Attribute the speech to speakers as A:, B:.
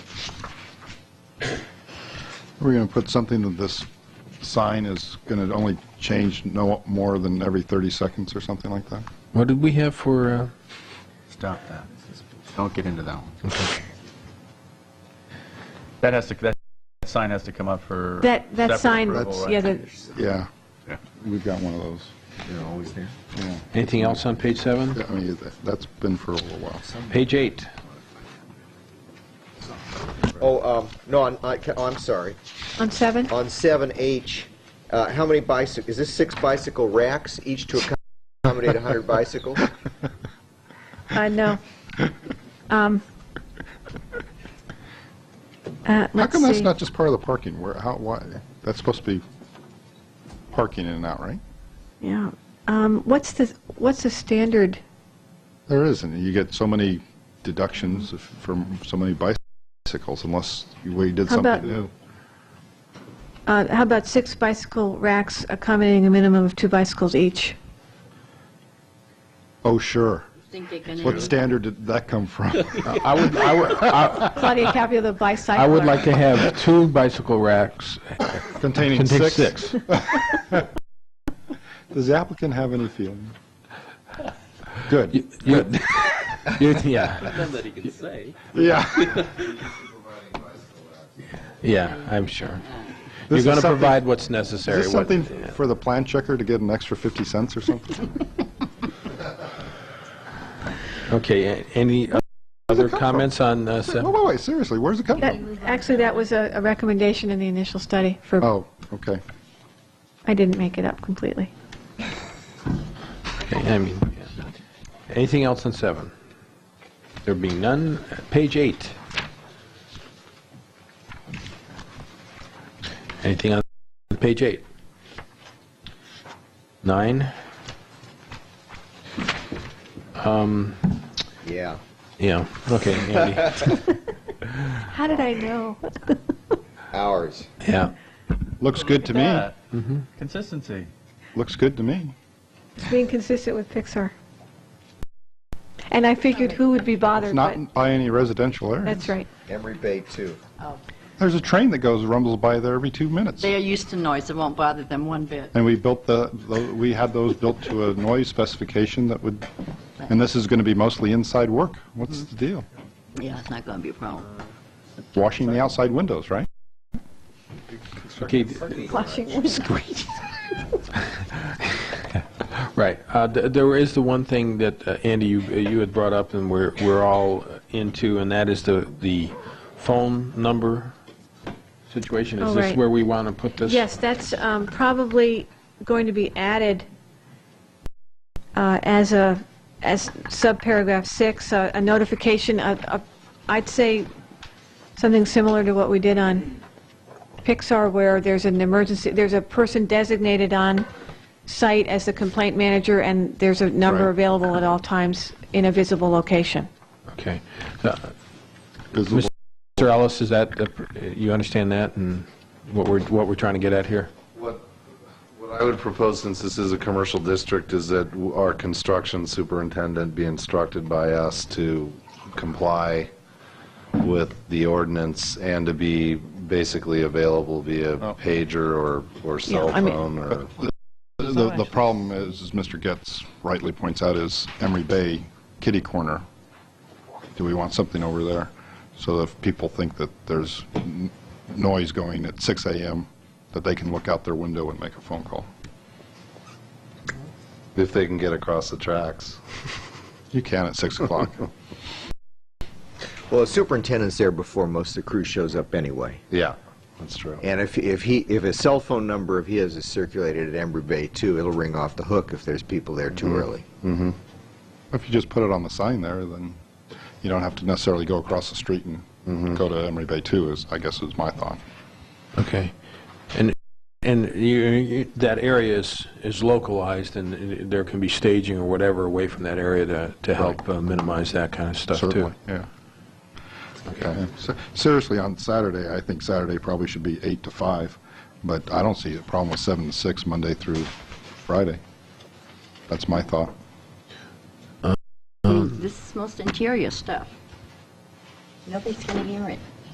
A: We're going to put something that this sign is going to only change no more than every 30 seconds or something like that?
B: What did we have for, uh,
C: Stop that. Don't get into that one.
D: That has to, that sign has to come up for.
E: That,
D: separate
E: that sign,
D: approval, right?
E: yeah, the,
A: Yeah,
D: Yeah.
A: we've got one of those.
C: They're always there.
A: Yeah,
B: anything else on page seven?
A: Yeah, I mean, that- that's been for a little while.
B: Page eight.
F: Oh, um, no, on, I, ca- oh, I'm sorry.
E: on seven?
F: On seven H, uh, how many bicycle, is this six bicycle racks, each to accom- accommodate hundred bicycles?
E: Uh, no. Um, uh,
A: How
E: let's
A: come that's
E: see.
A: not just part of the parking? Where, how, why, that's supposed to be parking in and out, right?
E: Yeah. Um, what's the, what's the standard?
A: There isn't. You get so many deductions if- from so many bicycles unless you- we did
E: How about-
A: something new.
E: Uh, how about six bicycle racks accommodating a minimum of two bicycles each?
A: Oh, sure.
G: think they can.
A: What standard did that come from?
B: I would, I would, I
E: Claudia Capio, the bicycler.
B: I would like to have two bicycle racks
A: Containing
B: containing
A: six?
B: six.
A: Does the applicant have any feeling? Good.
B: You- you- Yeah,
H: that he can say.
A: Yeah.
B: yeah, I'm sure.
A: This is
B: You're going to
A: something-
B: provide what's
A: Is
B: necessary.
A: this
B: what-
A: something for the plan checker to get an extra 50 cents or something?
B: Okay, a- any other comments on uh,
A: No,
B: seven?
A: wait, wait, seriously, where's it come
E: That,
A: from?
E: actually, that was a, a recommendation in the initial study for,
A: Oh, okay.
E: I didn't make it up completely.
B: Okay, I mean, yeah. anything else on seven? There being none, uh, page eight. Anything on page eight? Nine?
F: Yeah.
B: Yeah, okay, Andy,
E: How did I know?
F: Hours.
B: yeah.
A: Looks good to me.
D: Yeah. Consistency.
A: Looks good to me.
E: It's being consistent with Pixar. And I figured who would be bothered, but,
A: Not by any residential area.
E: that's right.
F: Emery Bay too.
A: There's a train that goes, rumbles by there every two minutes.
G: They are used to noise, it won't bother them one bit.
A: And we built the, the- we had those built to a noise specification that would, and this is going to be mostly inside work. What's the deal?
G: Yeah, it's not going to be a problem.
A: Washing the outside windows, right?
B: Okay, d-
E: Flushing was great.
B: Right. Uh, th- There is the one thing that, uh, Andy, you you had brought up and we're we're all into, and that is the the phone number situation. Is
E: Oh,
B: this
E: right.
B: where we want to put this?
E: Yes, that's um, probably going to be added uh, as a, as subparagraph six, a a notification, a- a- I'd say something similar to what we did on Pixar, where there's an emergency, there's a person designated on site as the complaint manager, and there's a number
A: Right.
E: available at all times in a visible location.
B: Okay. Uh,
A: Visible-
B: Mr. Ellis, is that, the pr- you understand that and what we're what we're trying to get at here?
I: What, what I would propose, since this is a commercial district, is that w- our construction superintendent be instructed by us to comply with the ordinance and to be basically available via pager or, or cell
E: I mean- uh,
I: phone or.
A: The, the problem is, as Mr. Getz rightly points out, is Emery Bay kitty corner. Do we want something over there? So if people think that there's n- noise going at 6 AM, that they can look out their window and make a phone call.
I: If they can get across the tracks.
A: You can at 6 o'clock.
F: Well, the superintendent's there before most of the crew shows up anyway.
I: Yeah, that's true.
F: And if, if he, if a cell phone number of his is circulated at Emery Bay too, it'll ring off the hook if there's people there too early.
A: If you just put it on the sign there, then you don't have to necessarily go across the street and go to Emery Bay 2, is, I guess is my thought.
B: Okay. And and you- you- that area is is localized and there can be staging or whatever away from that area to to help uh, minimize that kind of stuff too.
A: Certainly, yeah. Yeah. Se- Seriously, on Saturday, I think Saturday probably should be 8 to 5, but I don't see a problem with 7 to 6, Monday through Friday. That's my thought.
G: This is most interior stuff. Nobody's going to hear it.